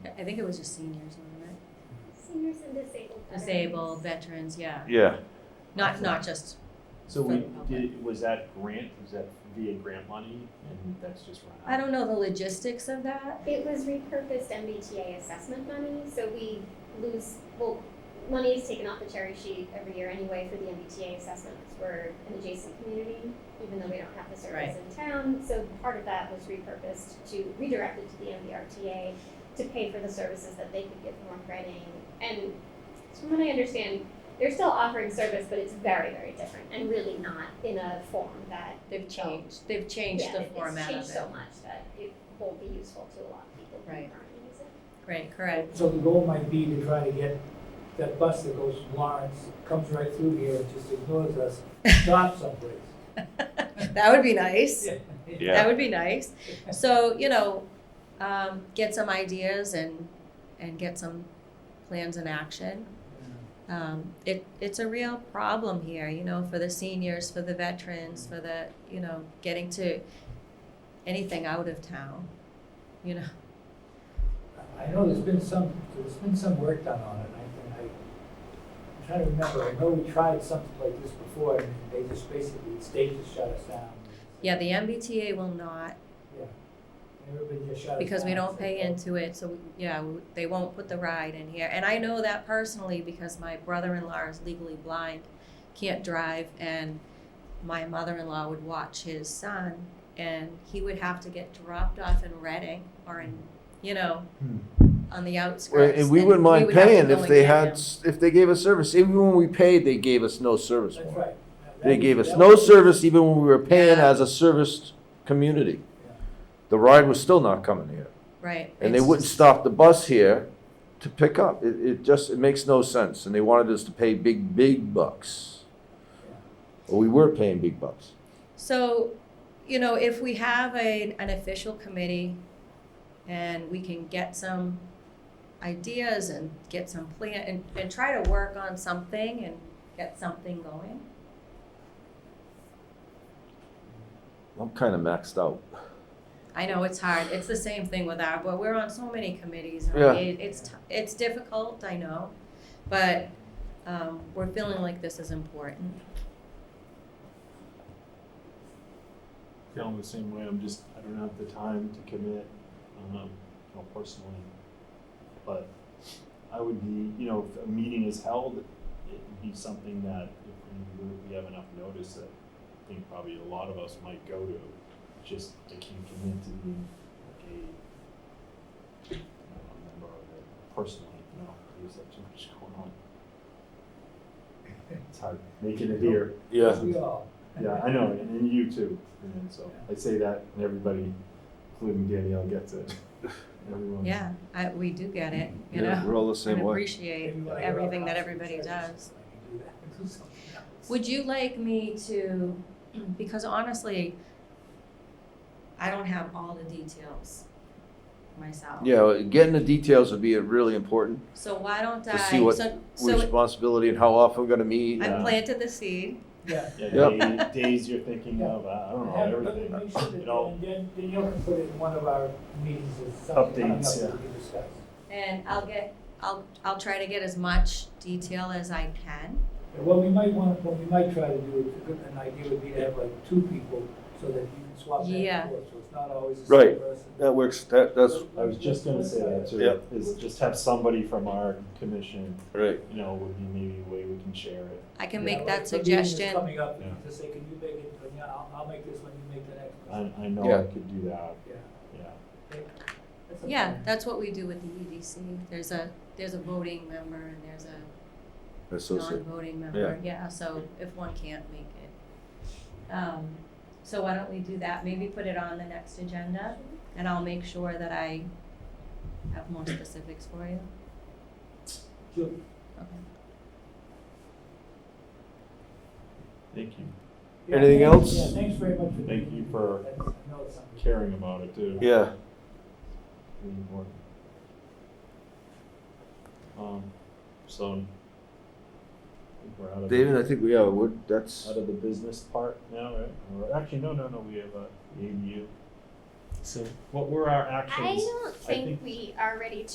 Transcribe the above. I think it was just seniors, wasn't Seniors and disabled it? veterans. Disabled, veterans, yeah. Yeah, Not, not just, So For we the public. did, was that grant, was that via grant money and that's just run out? I don't know the logistics of that. It was repurposed MBTA assessment money, so we lose, well, money is taken off the cherry sheet every year anyway for the MBTA assessment because we're an adjacent community, even though we don't have the service Right. in town. So part of that was repurposed to, redirected to the MBRTA to pay for the services that they could get from North Reading. And from what I understand, they're still offering service, but it's very, very different and really not in a form that They've changed, Oh. they've changed yeah, the it- format It's of changed so it. much that it won't be useful to a lot of people who Right. currently use it. Great, correct. So the goal might be to try to get that bus that goes from Lawrence, comes right through here and just ignores us, stops someplace. That would be nice. That yeah. would be nice. So, you know, um, get some ideas and, and get some plans in action. Um, it, it's a real problem here, you know, for the seniors, for the veterans, for the, you know, getting to anything out of town, you know. I know there's been some, there's been some work done on it, and I, and I, I'm trying to remember, I know we tried something like this before, and they just basically, the state just shut us down. Yeah, the MBTA will not Yeah. Everybody just shut us down. because we don't So, pay into it, so we- yeah, we- they won't put the ride in here. And I know that personally because my brother-in-law is legally blind, can't drive, and my mother-in-law would watch his son, and he would have to get dropped off in Reading or in, you know, on the outskirts. Hmm. And we wouldn't mind would have to paying go if and they get had, him. s- if they gave us service, even when we paid, they gave us no service That's for it. right. They gave us That no was- service even when we were paying Yeah. as a serviced community. Yeah. The ride was still not coming here. Right. And they it's- wouldn't stop the bus here to pick up. It, it just, it makes no sense. And they wanted us to pay big, big bucks. Well, we were paying big bucks. So, you know, if we have a, an official committee and we can get some ideas and get some plan and, and try to work on something and get something going. I'm kind of maxed out. I know it's hard. It's the same thing with our board. We're on so many committees. and Yeah. It, it's, t- it's difficult, I know, but, um, we're feeling like this is important. Feeling the same way, I'm just, I don't have the time to commit, um, you know, personally. But I would be, you know, if a meeting is held, it would be something that if we, were- we have enough notice that I think probably a lot of us might go to, just I can't commit to being like a, you know, a member of it personally, you know, because there's too much going on. It's hard making it here. We all. Yeah, I know, and and you too. And so I say that, and everybody, including Danielle, gets it. Everyone. Yeah, I, we do get it, you Yeah, know, we're all the and same way. appreciate Maybe when I go everything that out everybody to church, does. I can do that. Do something else. Would you like me to, because honestly, I don't have all the details myself. Yeah, getting the details would be really important. So why don't I, To see what so, so Responsibility and how often we're gonna meet. I Yeah. planted the seed, Yeah. Yeah, Yep. day- days you're thinking of, I I don't know, Have- but everything. make sure that- It all- and then- then you'll put it in one of our meetings as something coming up Updates, that we can discuss. and I'll get, I'll, I'll try to get as much detail as I can. And What we might want, what we might try to do, is a good- an idea would be to have like two people so that you can swap back Yeah. and forth, so it's not always the Right. same person. That works, that, that's, I was just gonna say that too, Yep. is just have somebody from our commission, right. you know, would be maybe a way we can share it. I can Yeah, make like that the meeting is suggestion, Coming up, Yeah. just say, can you make it, yeah, I'll, I'll make this one, you make the next one. I, I know Yeah. I could do that, Yeah. yeah. That's a yeah, plan. that's what we do with the EDC, there's a, there's a voting member and there's a Associate. non-voting member, yeah, so if one can't make it. Um, so why don't we do that, maybe put it on the next agenda? And I'll make sure that I have more specifics for you. Sure. Okay. Thank you, Yeah, Anything thanks- else? Yeah, thanks very much. for Thank doing you that. for That's- I know it's something. caring about it too. Yeah, really important. Um, so. I think we're out of- David, I think we are, we're, that's, out of the business part now, right? Or- actually, no, no, no. We have a ADU. So, what were our actions? I don't I think think we are ready to